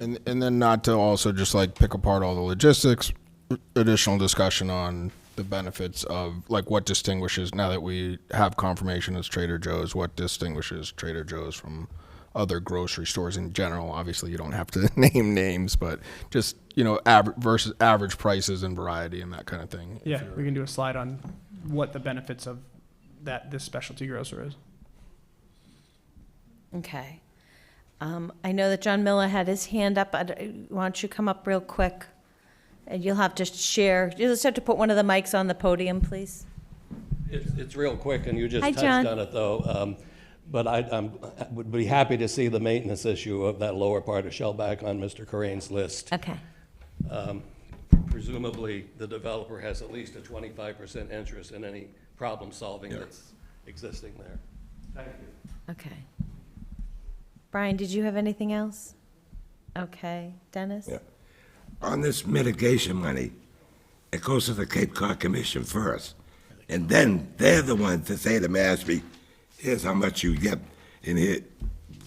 And, and then not to also just like pick apart all the logistics, additional discussion on the benefits of like what distinguishes, now that we have confirmation as Trader Joe's, what distinguishes Trader Joe's from other grocery stores in general? Obviously, you don't have to name names, but just, you know, average versus average prices and variety and that kind of thing. Yeah, we can do a slide on what the benefits of that, this specialty grocer is. Okay. Um, I know that John Miller had his hand up. I'd- Why don't you come up real quick? And you'll have to share, you'll just have to put one of the mics on the podium, please. It's, it's real quick, and you just Hi, touched John. on it, though. Um, But I, I'm, would be happy to see the maintenance issue of that lower part of Shellback on Mr. Corain's list. Okay. Presumably, the developer has at least a twenty-five percent interest in any problem-solving that's existing there. Thank you. Okay. Brian, did you have anything else? Okay, Dennis? Yeah. On this mitigation money, it goes to the Cape Cod Commission first. And then they're the ones that say to Mashpee, here's how much you get in here.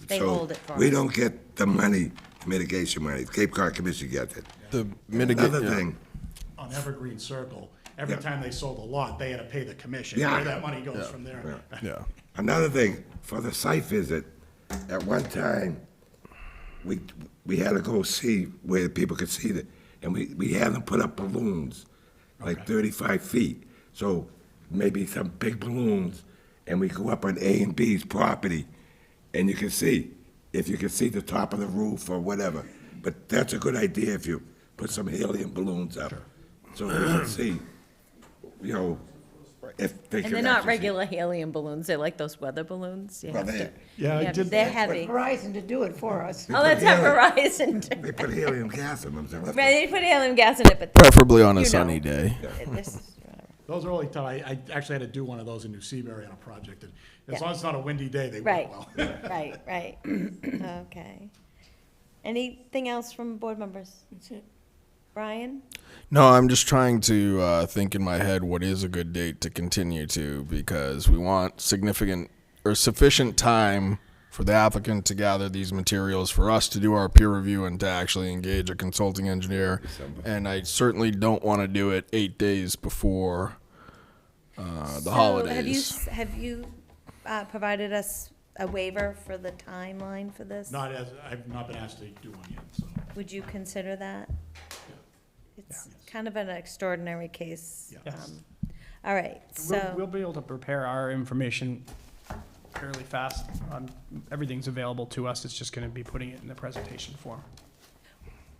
They So hold it for We us. don't get the money, mitigation money. The Cape Cod Commission gets it. The Another mitigate, thing, on Evergreen Circle, every Yeah. time they sold a lot, they had to pay the commission. Yeah. Where that money goes from there. yeah. another thing, for the site visit, at one time, we, we had to go see where people could see it, and we, we had them put up balloons, like thirty-five feet, so maybe some big balloons, and we go up on A and B's property, and you can see, if you can see the top of the roof or whatever, but that's a good idea if you put some helium balloons up, so we can see, you know, if they can. And they're not actually see. regular helium balloons, they're like those weather balloons. You Well, have to- they- Yeah, I you have- did- They're heavy. Verizon to do it for us. Oh, that's at Verizon. They put helium gas in them, so that's- They put helium gas in it, but. Preferably on a You know. sunny day. this- Those are only time, I, I actually had to do one of those in New Seabury on a project, and as Yeah. long as it's not a windy day, they Right, work well. right, right. Okay. Anything else from board members? That's it. Brian? No, I'm just trying to uh, think in my head what is a good date to continue to because we want significant or sufficient time for the applicant to gather these materials for us to do our peer review and to actually engage a consulting engineer. And I certainly don't want to do it eight days before uh, the holidays. Have you, s- have you uh, provided us a waiver for the timeline for this? Not as, I've not been asked to do one yet, so. Would you consider that? It's kind of an extraordinary case. Yes. um, All right, We'll, we'll so, be able to prepare our information fairly fast. Um, everything's available to us. It's just gonna be putting it in the presentation form.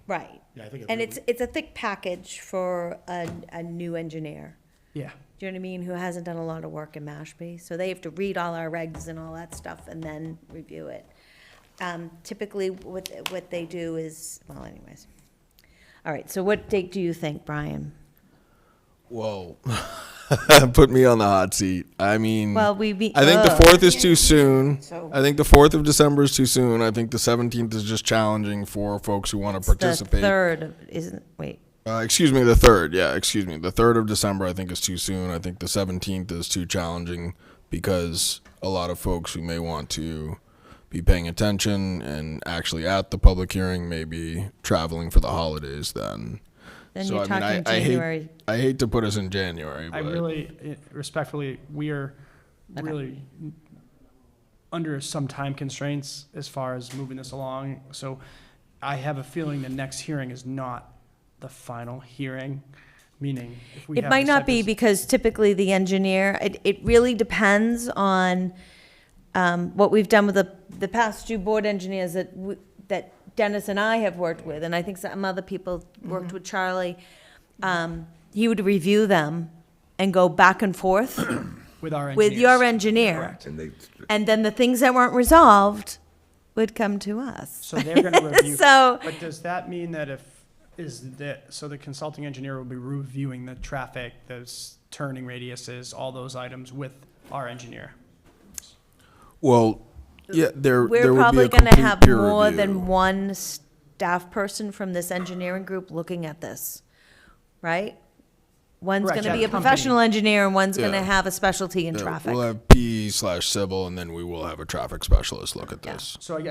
right. Yeah, I think it And really- it's, it's a thick package for a, a new engineer. Yeah. do you know what I mean, who hasn't done a lot of work in Mashpee. So they have to read all our regs and all that stuff and then review it. Um, typically, what, what they do is, well, anyways. All right, so what date do you think, Brian? Whoa. Put me on the hot seat. I mean, Well, we be- Hmm. I think ugh. the fourth is too soon. So- I think the fourth of December is too soon. I think the seventeenth is just challenging for folks who want to The participate. third, of- isn't, wait, Uh, excuse me, the third. Yeah, excuse me. The third of December, I think, is too soon. I think the seventeenth is too challenging because a lot of folks who may want to be paying attention and actually at the public hearing may be traveling for the holidays then. Then So, you're I mean, I- talking I hate- January. I hate to put us in January, I but. really, eh, respectfully, we are really under some time constraints as far as moving this along. So I have a feeling the next hearing is not the final hearing, meaning if we It have might this not type be of- because typically the engineer, it, it really depends on um, what we've done with the, the past two board engineers that, w- that Dennis and I have worked with, and I think some other people worked Mm-hmm. with Charlie. Um, He would review them and go back and forth With our with your engineers. engineer. And they, And then the things that weren't resolved would come to us. So they're gonna review. So- But does that mean that if, is that, so the consulting engineer will be reviewing the traffic, those turning radiuses, all those items with our engineer? Well, yeah, there. We're there probably would be a gonna complete have peer more review. than one staff person from this engineering group looking at this, right? One's Correct, gonna yeah, be a company. professional engineer and one's Yeah. gonna have a specialty in Yeah, traffic. We'll have P slash civil, and then we will have a traffic specialist look at Yeah. this. So I,